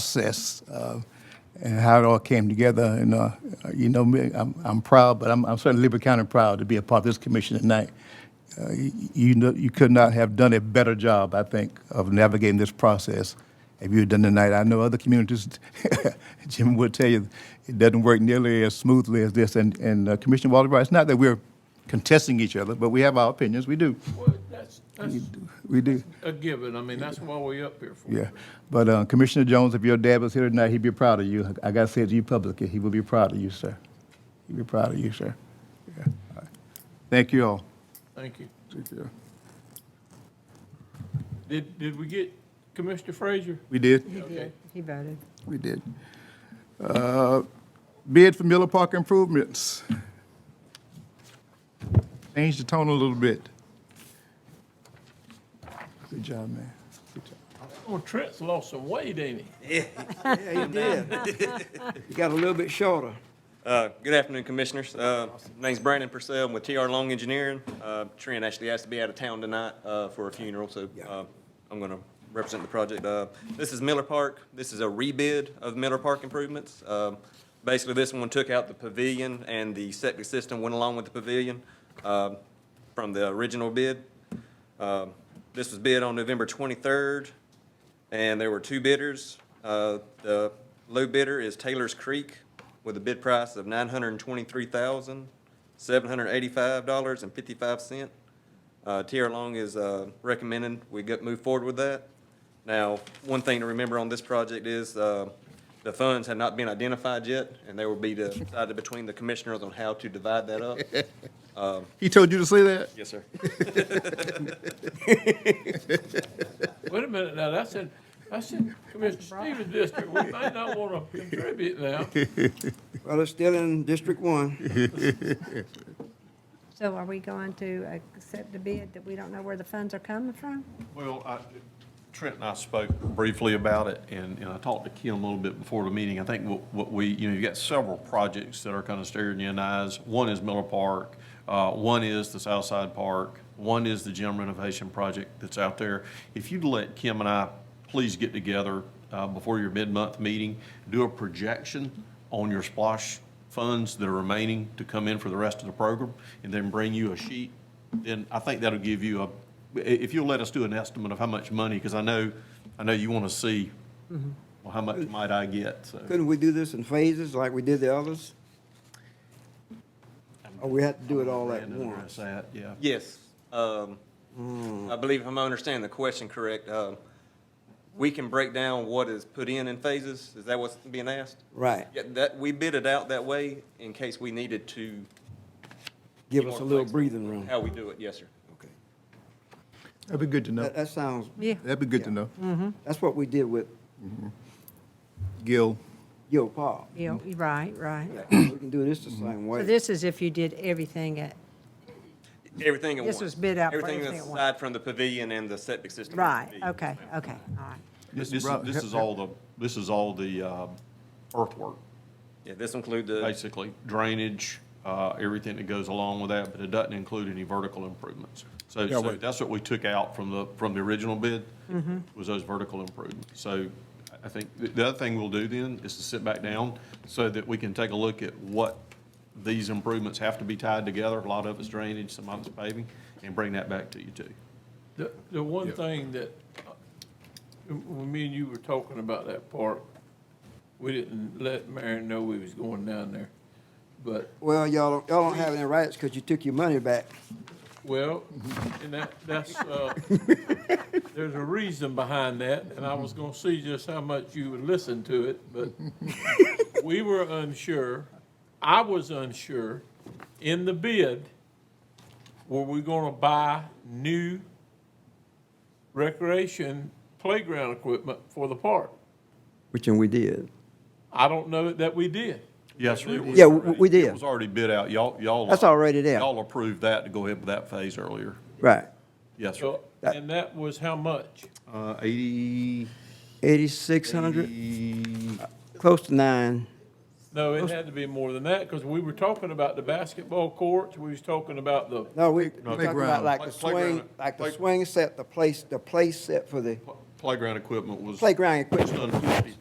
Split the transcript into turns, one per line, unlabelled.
process uh, and how it all came together. And, uh, you know, me, I'm, I'm proud, but I'm, I'm certainly Liberty County proud to be a part of this commission tonight. Uh, y- You know, you could not have done a better job, I think, of navigating this process if you had done tonight. I know other communities, Jim will tell you, it doesn't work nearly as smoothly as this. And, and uh, Commissioner Walter Brown, it's not that we're contesting each other, but we have our opinions. We do.
Well, that's, that's
We do.
a given. I mean, that's why we up here for.
Yeah, but uh, Commissioner Jones, if your dad was here tonight, he'd be proud of you. I gotta say it to you publicly, he would be proud of you, sir. He'd be proud of you, sir. Yeah. All right. Thank you all.
Thank you.
Thank you.
Did, did we get Commissioner Frazier?
We did,
He did. He voted.
we did. Uh, Bid for Miller Park improvements. Change the tone a little bit. Good job, man. Good job.
Oh, Trent's lost some weight, ain't he?
Yeah, you did. You got a little bit shorter.
Uh, Good afternoon, Commissioners. Uh, Name's Brandon Purcell. I'm with TR Long Engineering. Uh, Trent actually has to be out of town tonight uh, for a funeral, so uh, I'm going to represent the project. Uh, This is Miller Park. This is a rebid of Miller Park improvements. Um, Basically, this one took out the pavilion, and the septic system went along with the pavilion um, from the original bid. Um, This was bid on November 23rd, and there were two bidders. Uh, The low bidder is Taylor's Creek with a bid price of $923,785.55. Uh, TR Long is uh, recommending we get, move forward with that. Now, one thing to remember on this project is uh, the funds have not been identified yet, and they will be decided between the commissioners on how to divide that up.
He told you to say that?
Yes, sir.
Wait a minute now, that's in, that's in Commissioner Stevens' district. We may not want to contribute now.
Well, it's still in District One.
So are we going to accept the bid that we don't know where the funds are coming from?
Well, I- Trent and I spoke briefly about it, and, and I talked to Kim a little bit before the meeting. I think what, what we, you know, you've got several projects that are kind of staring you in the eyes. One is Miller Park, uh, one is the Southside Park, one is the gym renovation project that's out there. If you'd let Kim and I please get together uh, before your mid-month meeting, do a projection on your splosh funds that are remaining to come in for the rest of the program, and then bring you a sheet, then I think that'll give you a, i- if you'll let us do an estimate of how much money, because I know, I know you want to see, well, how much might I get, so.
Couldn't Mm-hmm. we do this in phases like we did the others? Or we had to do it all at
Brandon
once?
addressed that, yeah.
Yes. um,
Mm.
I believe if I'm understanding the question correct, um, we can break down what is put in in phases? Is that what's being asked?
Right.
Yeah, that, we bid it out that way in case we needed to. be
Give us
more
a little
flexible
breathing
with
room.
How we do it, yes, sir.
Okay.
That'd be good to know.
That, that sounds,
Yeah.
That'd be good to know.
that's what we did with
Gil.
Gil Park.
Yeah, you're right, right.
We can do this the same
So
way.
this is if you did everything at,
Everything at once.
This was bid out for everything
that's
at once.
aside from the pavilion and the septic system.
right, okay, okay, all right.
This,
Mr.
this is-
Brown,
this
help-
is all the, this is all the um, earthwork,
Yeah, this include the,
basically, drainage, uh, everything that goes along with that, but it doesn't include any vertical improvements. So, so that's what we took out from the, from the original bid,
Mm-hmm.
was those vertical improvements. So I- I think, the- the other thing we'll do then is to sit back down so that we can take a look at what these improvements have to be tied together. A lot of it's drainage, some of it's paving, and bring that back to you too.
The, the one thing that, uh, when me and you were talking about that park, we didn't let Marion know we was going down there. But
Well, y'all, don't- y'all don't have any rights because you took your money back.
Well, and that, that's, uh, there's a reason behind that, and I was gonna see just how much you would listen to it, but we were unsure, I was unsure, in the bid, were we gonna buy new recreation playground equipment for the park?
Which and we did.
I don't know that we did.
Yes, it was.
Yeah, w-
already-
we did.
It was already bid out. Y'all, y'all.
That's already there.
Y'all approved that to go ahead with that phase earlier.
Right.
Yes, sir.
So, and that was how much?
Uh, eighty,
Eighty-six hundred, uh, close to nine.
No, it had to be more than that, because we were talking about the basketball courts, we was talking about the
No, we, we're talking
Playground.
about like the
Play- playground.
swing, like the
Play-
swing set, the place, the place set for the
playground equipment was.
playground equipment.
Just under fifty,